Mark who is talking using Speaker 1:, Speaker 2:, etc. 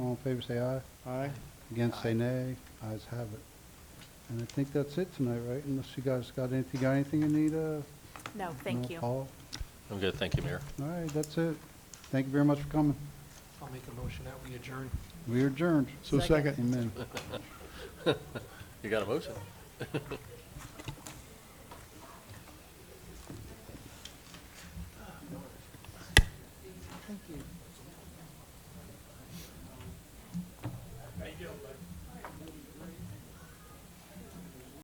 Speaker 1: All in favor, say aye.
Speaker 2: Aye.
Speaker 1: Against, say nay. Ayes have it. And I think that's it tonight, right? Unless you guys got anything, got anything you need, uh?
Speaker 3: No, thank you.
Speaker 1: Paul?
Speaker 4: I'm good, thank you, Mayor.
Speaker 1: All right, that's it. Thank you very much for coming.
Speaker 5: I'll make a motion that we adjourn.
Speaker 1: We are adjourned.
Speaker 2: So second.
Speaker 1: Amen.
Speaker 4: You got a motion?
Speaker 5: Thank you.